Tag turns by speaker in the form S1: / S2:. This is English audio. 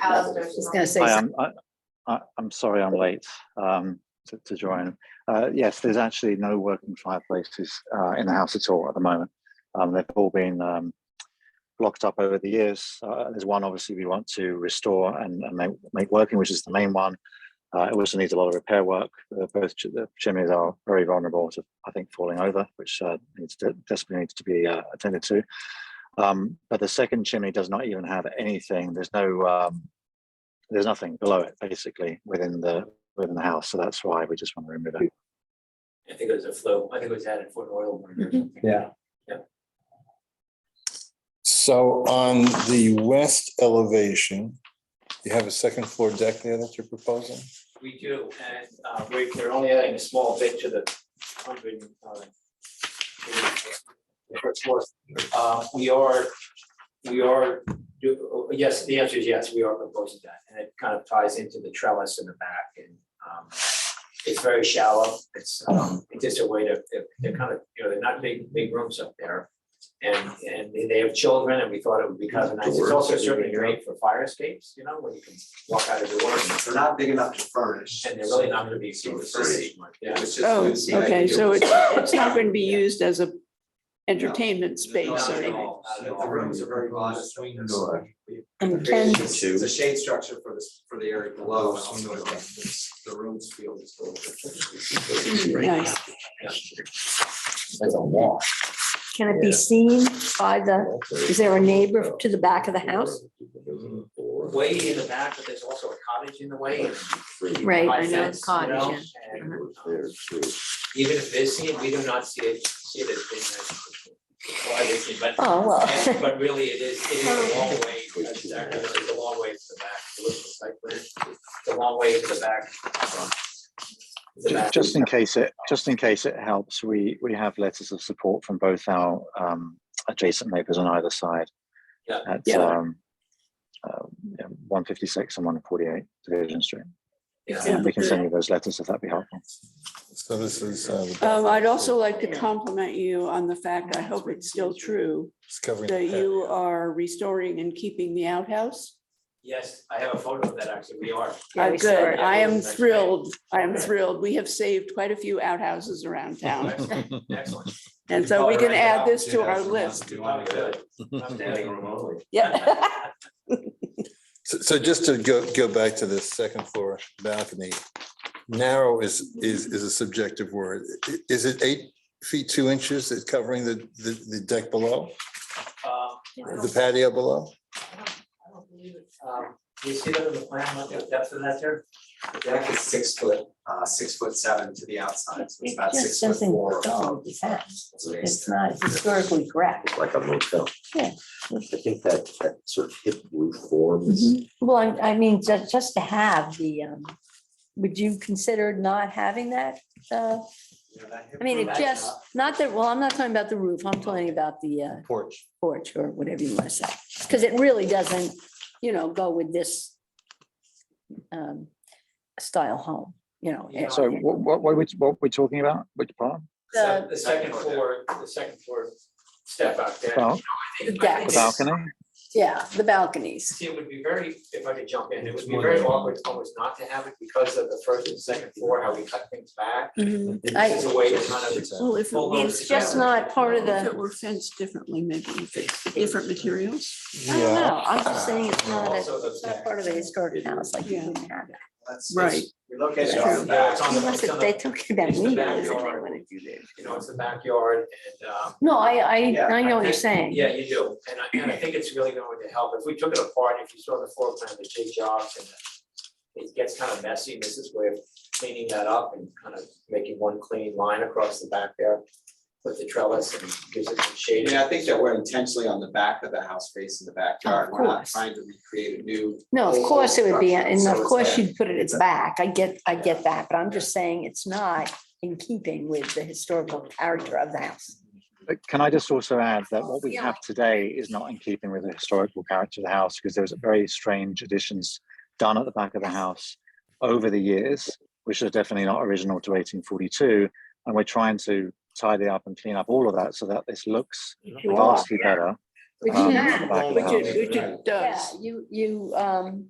S1: Alistair.
S2: Just gonna say
S3: Hi,
S2: something.
S3: I'm, I, I- I'm sorry I'm late um, to, to join. Uh, yes, there's actually no working fireplaces uh, in the house at all at the moment. Um, they've all been um, blocked up over the years. Uh, there's one obviously we want to restore and, and make, make working, which is the main one. Uh, it also needs a lot of repair work. Uh, both ch- the chimneys are very vulnerable to, I think, falling over, which uh, needs to, desperately needs to be uh, attended to. Um, but the second chimney does not even have anything. There's no um, there's nothing below it basically within the within the house so that's why we just want to remove it
S4: I think it was a flow, I think it was added for an oil. burner or
S2: Mhm.
S4: something.
S5: Yeah.
S6: So on the west elevation, you have a second floor deck there that you're proposing?
S4: We do, and uh, we're, we're only adding a small bit to the hundred. uh, to the First floor, uh, we are, we are, do, uh, yes, the answer is yes, we are proposing that, and it kind of ties into the trellis in the back and um. It's very shallow, it's um, it's just a way to, they're- they're kind of, you know, they're not big, big rooms up there. And and they- they have children, and we thought it would be kind of nice, it's also certainly great for fire escapes, you know, where you can walk out of the door and
S7: They're not big enough to furnish.
S4: and they're really not gonna be super
S7: Furnished.
S4: Yeah,
S7: It's just-
S2: Oh,
S7: it's the
S2: okay, so
S7: ideal.
S2: it's, it's not going to be used as a entertainment space
S7: Not
S2: or
S7: at
S2: anything.
S7: all,
S4: uh,
S7: not at all. The rooms are very modest. Swing
S5: door.
S2: And Ken,
S7: It's it's a shade structure for this, for the area below, and also it makes the rooms feel just a little bit.
S2: nice.
S5: There's a wall.
S8: Can it be seen by the, is there a neighbor to the back of the house?
S4: way in the back, but there's also a cottage in the way. and
S8: Right,
S4: high
S8: I know,
S4: fence, you
S8: cottage,
S4: know, and, um, Even if it's seen, we do not see it, see it as being a- well, it is, But,
S8: Oh,
S4: and-
S8: well,
S4: but really, it is, it is a long way, it's actually it's a long way to the back, to look at the site plan, it's a long way to the back. um, the
S3: Ju-
S4: back.
S3: just in case it just in case it helps we we have letters of support from both our um, adjacent neighbors on either side
S4: Yeah.
S3: at
S2: Yeah.
S3: um, uh, 156 and 148 division street
S4: Yeah.
S2: Yeah.
S3: we can send you those letters if that'd be helpful
S6: So this is. uh, the
S2: Um, I'd
S6: bathroom.
S2: also like to compliment you on the fact, I hope it's still true,
S6: It's covering.
S2: that
S6: the
S2: you are restoring and keeping the outhouse.
S4: Yes, I have a photo of that, actually, we are.
S8: Yeah,
S2: Uh,
S8: we saw
S2: Good,
S8: it.
S2: I am thrilled, I am thrilled. We have saved quite a few outhouses around town.
S4: Excellent, Excellent.
S2: And so we can add this to our
S7: Yeah,
S2: list.
S7: do all good.
S4: Outstanding.
S2: Yeah.
S6: So, so just to go, go back to the second floor balcony, narrow is, is, is a subjective word. I- Is it eight feet, two inches that's covering the, the, the deck below,
S4: Um,
S6: the patio below?
S4: I don't- I don't believe it. Um, Do you see that in the plan, what the depth of that there?
S7: The deck is six foot, uh, six foot seven to the outside, so it's about
S8: It's
S7: six
S8: just
S7: foot
S8: something
S7: four.
S8: tall, it's fat.
S7: So
S8: it's not historically correct.
S9: like a motel.
S8: Yeah.
S9: I think that, that sort of hip roof form is,
S8: Well, I, I mean, just, just to have the, um, would you consider not having that? Uh, I mean, it just, not that, well, I'm not talking about the roof, I'm talking about the uh,
S5: Porch.
S8: porch or whatever you want to say. Because it really doesn't, you know, go with this um, style home, you know. it-
S3: so what, what, what, are we, what are we talking about which part
S4: The sec-
S8: The-
S4: the second floor, the second floor step out there.
S3: Bal-
S4: I
S8: The deck.
S4: think
S8: Yes.
S3: the balcony
S8: Yeah, the balconies.
S4: it's- It would be very, if I could jump in, it would be very awkward almost not to have it because of the first and second floor, how we cut things back. This is a way to kind of.
S2: Well, if it
S4: Well,
S2: were-
S8: It's just not part of
S2: if it
S8: the,
S2: were fenced differently, maybe if it's different materials.
S8: I don't know, I'm just saying it's not, a-
S4: Also the-
S8: it's not part of a historic house, like you
S2: Yeah.
S8: wouldn't have it.
S2: Right.
S7: Your location
S2: That's
S7: is
S2: true.
S7: back.
S4: It's on the-
S8: Unless
S4: it's
S8: if
S4: on
S8: they
S4: the-
S8: took it down,
S4: it's the
S8: they
S4: backyard.
S8: want to do that.
S4: You know, it's the backyard and um.
S8: No, I, I,
S7: Yeah,
S8: I know what
S4: I
S8: you're
S4: think-
S8: saying.
S4: Yeah, you do, and I, and I think it's really going to help, if we took it apart, if you saw the floor plan, the big jobs and the- it gets kind of messy, and this is where cleaning that up and kind of making one clean line across the back there with the trellis and gives it some shade.
S7: Yeah, I think that we're intentionally on the back of the house facing the backyard. We're not
S8: course.
S7: trying to recreate a new.
S8: No, of
S7: whole
S8: course it would be,
S7: structure,
S8: and
S7: so
S8: of
S7: it's
S8: course
S7: there.
S8: you'd put it at the back. I get, I get that, but I'm just saying it's not in keeping with the historical character of the house.
S3: But can I just also add that what we
S8: Yeah.
S3: have today is not in keeping with the historical character of the house because there was very strange additions done at the back of the house over the years, which are definitely not original to 1842. And we're trying to tidy up and clean up all of that so that this looks
S8: You are.
S3: vastly better.
S8: Which
S3: um,
S8: you
S3: at the
S8: have.
S3: back of the
S2: Which
S3: house.
S2: it, which it
S8: Yeah,
S2: does.
S8: you, you, um,